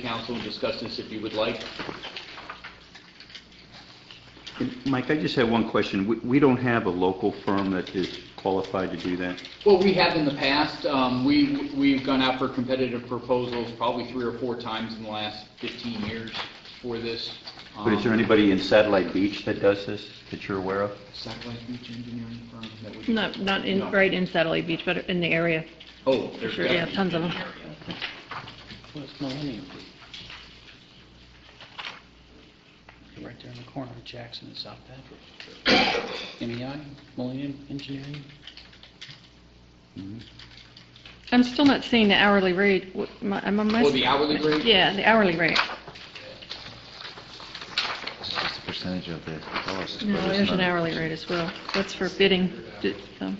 council and discuss this if you would like. And Mike, I just had one question. We- We don't have a local firm that is qualified to do that? Well, we have in the past, um, we, we've gone out for competitive proposals probably three or four times in the last 15 years for this. But is there Um, anybody in Satellite Beach that does this, that you're aware of? Satellite Beach Engineering firm that would. Not, not in, No. right in Satellite Beach, but in the area. Oh, there's Sure, yeah, definitely. tons of them. What's Millennium Group? Right there in the corner of Jackson and South Patrick. MEI, Millennium Engineering? I'm still not seeing the hourly rate. What- my- am I miss- Or the hourly rate? Yeah, the hourly rate. It's just a percentage of the cost. No, but it's there's an not- hourly rate as well. That's for bidding. um, D- so.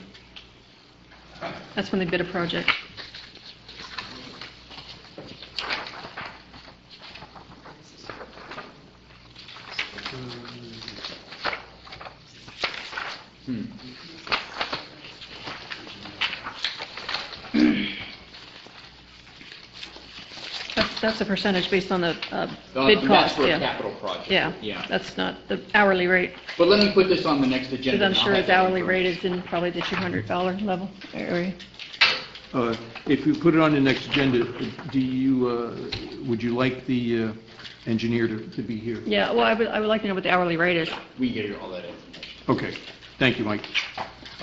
That's when they bid a project. Hmm. That's, that's a percentage based on the uh, Uh, bid and that's cost, for a yeah. capital project. Yeah, Yeah. that's not the hourly rate, But let me put this on the next agenda. because I'm and I'll sure have its that hourly information. rate is in probably the $200 level area. Uh, If you put it on the next agenda, do you, uh, would you like the uh, engineer to to be here? Yeah, well, I would, I would like to know what the hourly rate is. We get all that information. Okay, thank you, Mike.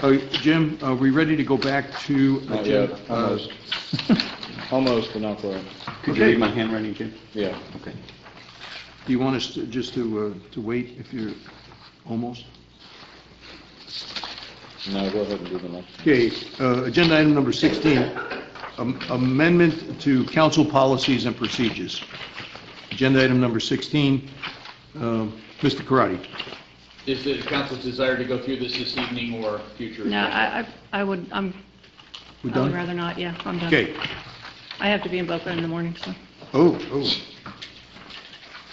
Uh, Jim, are we ready to go back to? Not agenda- yet, uh, almost. Almost, but not quite. Could you read my handwriting, Jim? Yeah. Okay. Do you want us to- just to uh, to wait if you're almost? No, go ahead and do the next. Okay, uh, agenda item number 16, am- amendment to council policies and procedures. Agenda item number 16, um, Mr. Karati. Is the council's desire to go through this this evening or future? No, I, I I would, I'm, We I would done? rather not, yeah, I'm done. Okay. I have to be in Boca in the morning, so. Oh, oh.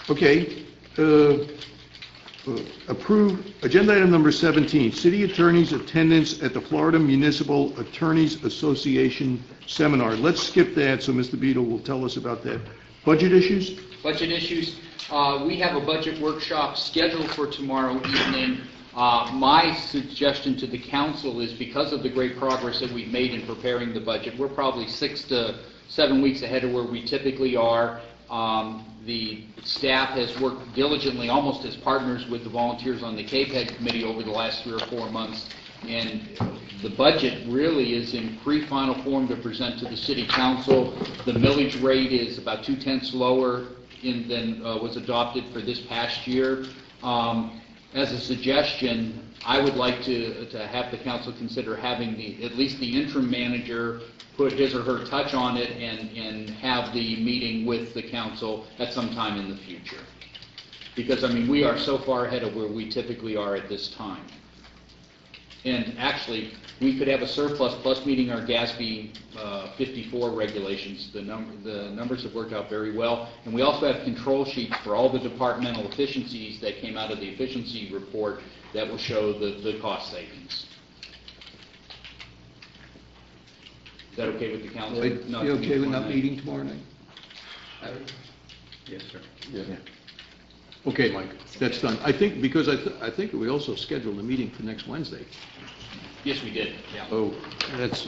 Okay. uh, uh, Approve, agenda item number 17, city attorney's attendance at the Florida Municipal Attorneys Association seminar. Let's skip that, so Mr. Beadle will tell us about that. Budget issues? budget issues. Uh, We have a budget workshop scheduled for tomorrow evening. Uh, My suggestion to the council is because of the great progress that we've made in preparing the budget, we're probably six to seven weeks ahead of where we typically are. Um, The staff has worked diligently, almost as partners with the volunteers on the KPEG committee over the last three or four months. And the budget really is in pre-final form to present to the city council. The millage rate is about two-tenths lower in- than uh, was adopted for this past year. Um, As a suggestion, I would like to, to have the council consider having the, at least the interim manager put his or her touch on it and, and have the meeting with the council at some time in the future. Because, I mean, we are so far ahead of where we typically are at this time. And actually, we could have a surplus plus meeting our GASB uh, 54 regulations. The number, the numbers have worked out very well. And we also have control sheets for all the departmental efficiencies that came out of the efficiency report that will show the, the cost savings. Is that okay with the council? Not to You okay meet with not tonight? meeting tomorrow night? Yes, sir. Okay, Mike, that's done. I think, because I, th- I think we also scheduled a meeting for next Wednesday. Yes, we did, yeah. Oh, that's,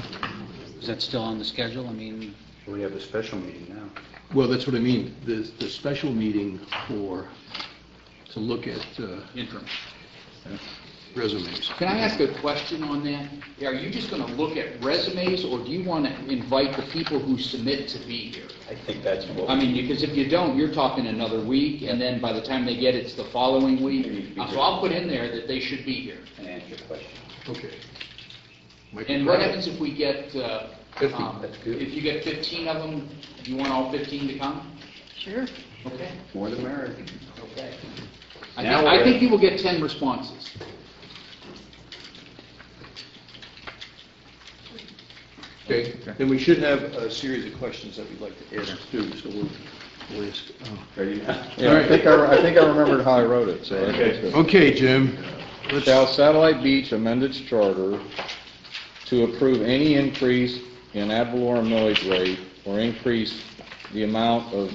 Is that still on the schedule? I mean, We have a special meeting now. well, that's what I mean, the, the special meeting for, to look at uh, Interim. resumes. Can I ask a question on that? Are you just going to look at resumes, or do you want to invite the people who submit to be here? I think that's I mean, because if you don't, you're talking another week, and then by the time they get it, it's the following week. They need to be Uh, So here. I'll put in there that they should be here. Can answer your question. Okay. Michael And what Pratt. happens if we get, uh, Fifty, um, that's good. if you get 15 of them, do you want all 15 to come? Sure. Okay. More than merit. Okay. I Now think, I we're- think you will get 10 responses. Okay, then we should have a series of questions that we'd like to ask too, so we'll, we'll ask. uh, There you go. Yeah, I think I, I think I remembered how I wrote it, so. I think it's good. Okay, Jim. Let's- Shall Satellite Beach amend its charter to approve any increase in ad valorem millage rate or increase the amount of